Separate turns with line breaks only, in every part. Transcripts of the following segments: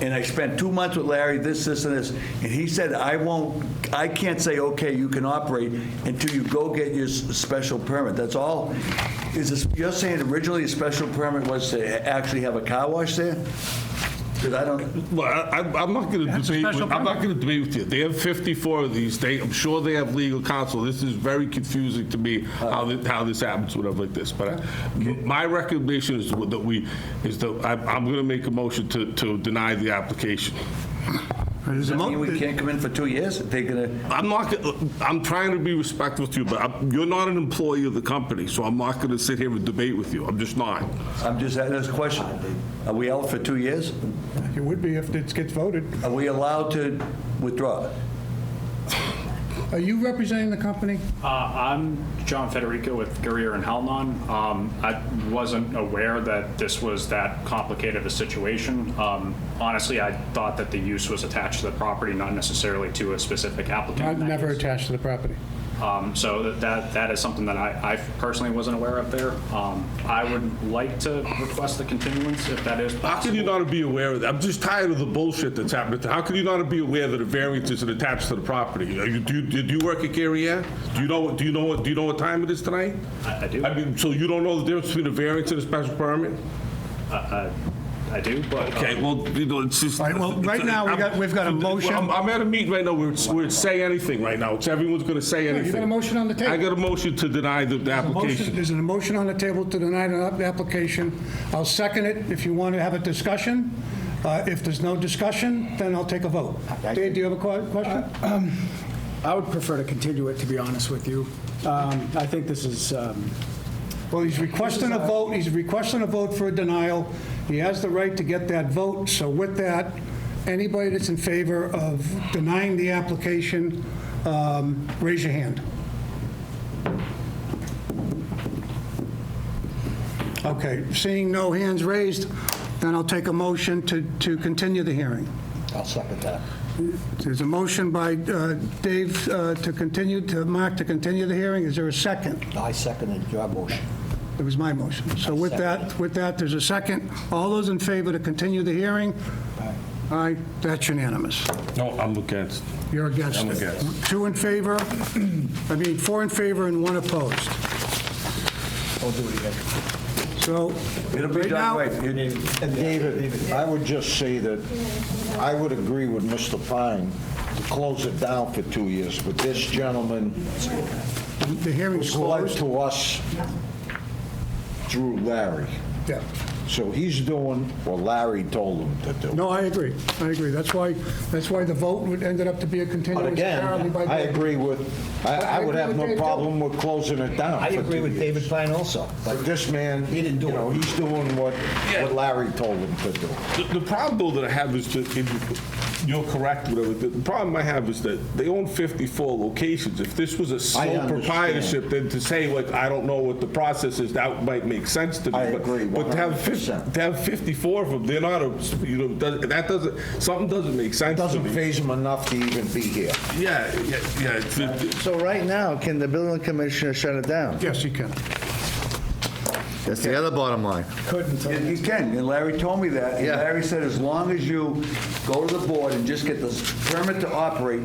and I spent two months with Larry, this, this, and this, and he said, I won't, I can't say, okay, you can operate until you go get your s- special permit. That's all. Is this, you're saying originally a special permit was to actually have a car wash there? Because I don't,
Well, I, I'm- I'm not going to debate.
special
With, I'm not going to debate with you. They have 54 of these. They, I'm sure they have legal counsel. This is very confusing to me how this, how this happens, whatever like this. But I, m- my recommendation is that we is that I, I'm going to make a motion to, to deny the application.
does that mean we can't come in for two years? They're gonna,
I'm not. gonna- I'm trying to be respectful to you, but I'm, you're not an employee of the company, so I'm not going to sit here and debate with you. I'm just not.
I'm just, that's a question. Are we out for two years?
It would be if it gets voted.
Are we allowed to withdraw?
Are you representing the company?
Uh, I'm John Federico with Guerrier and Halnon. Um, I wasn't aware that this was that complicated of a situation. Um, Honestly, I thought that the use was attached to the property, not necessarily to a specific applicant.
I'm
in that
never
case.
attached to the property.
Um, So that- that, that is something that I I personally wasn't aware of there. Um, I would like to request the continuance if that is
How can you
possible.
not be aware of that? I'm just tired of the bullshit that's happening. How can you not be aware that a variance is attached to the property? Are you, do, you, did you work at Garriere? Do you know what? Do you know what? Do you know what time it is tonight?
I I do,
I
I
mean, so you don't know the difference between a variance and a special permit?
I- Uh, I do, but. uh,
Okay, well, you know, it's just.
All right, well, right now, we got- we've got a
I'm-
motion.
I'm, I'm at a meeting right now where it's, where it's say anything right now. It's everyone's going to say
you got
anything.
a motion on the table.
I got a motion to deny the, the
Motion-
application.
There's an motion on the table to deny the app- application. I'll second it if you want to have a discussion. Uh, If there's no discussion, then I'll take a vote. Dave, do you have a que- question?
I would prefer to continue it, to be honest with you. Um, I think this is, um,
Well, he's requesting a vote, he's requesting a vote for a denial. He has the right to get that vote, so with that, anybody that's in favor of denying the application, um, raise your hand. Okay, seeing no hands raised, then I'll take a motion to to continue the hearing.
I'll second that.
There's a motion by uh, Dave uh, to continue, to Mark to continue the hearing. Is there a second?
I seconded your motion.
It was my motion. So with that, with that, there's a second. All those in favor to continue the hearing? Aye, that's unanimous.
No, I'm against.
You're against it.
I'm against.
Two in favor, I mean, four in favor and one opposed. I'll do it again. So,
It'll be done
Right now-
right. You need-
And David, I would just say that I would agree with Mr. Pine to close it down for two years, but this gentleman
the hearing's
was lied
closed.
to us through Larry.
Yeah.
So he's doing what Larry told him to do.
No, I agree, I agree. That's why, that's why the vote would- ended up to be a continuance.
But again,
apparently by
I
the-
agree with, I I would have no problem with closing it down
I
for
agree
two
with
years.
David Klein also, but
But this man,
He
you
didn't do
know,
it.
he's doing what what Larry told him to do.
The, the problem though that I have is that, if you- you're correct, whatever, the the problem I have is that they own 54 locations. If this was a sole
understand.
proprietorship, then to say, like, I don't know what the process is, that might make sense to me.
I
but-
agree
But to have, fif-
100%.
to have 54 of them, they're not, a- you know, does- that doesn't, something doesn't make sense to
Doesn't
me.
phase him enough to even be here.
Yeah, yeah, yeah. it's- it-
so right now, can the building commissioner shut it down?
Yes, you can.
That's the other bottom line.
And He can, and Larry told me that. And
Yeah.
Larry said, as long as you go to the board and just get the permit to operate,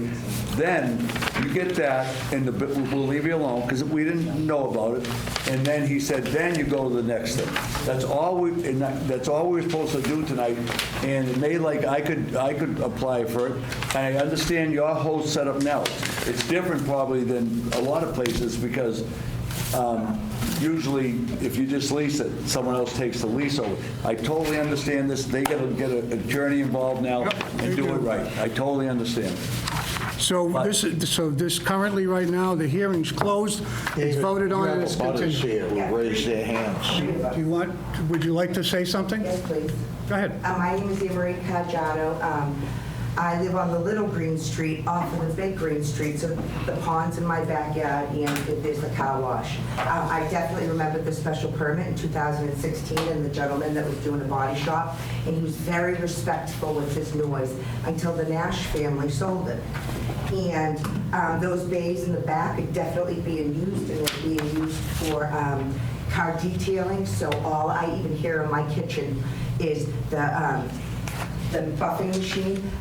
then you get that, and the, bi- we'll leave you alone, because we didn't know about it. And then he said, then you go to the next thing. That's all we, and that- that's all we were supposed to do tonight. And they, like, I could, I could apply for it. I understand your whole setup now. It's different probably than a lot of places, because um, Usually, if you just lease it, someone else takes the lease over. I totally understand this, they gotta get a attorney involved now and do it right. I totally understand.
So this, is- so this currently, right now, the hearing's closed, it's voted on, and it's
Butters
continued.
here will raise their hands.
Do you want, would you like to say something?
Yes, please.
Go ahead.
Uh, My name is Emery Cajado. Um, I live on the Little Green Street off of the Big Green Street, so the pond's in my backyard and there's the car wash. Uh, I definitely remember the special permit in 2016 and the gentleman that was doing the body shop, and he was very respectful with his noise until the Nash family sold it. And um, those bays in the back are definitely being used, and they're being used for um, car detailing, so all I even hear in my kitchen is the um, the buffing machine,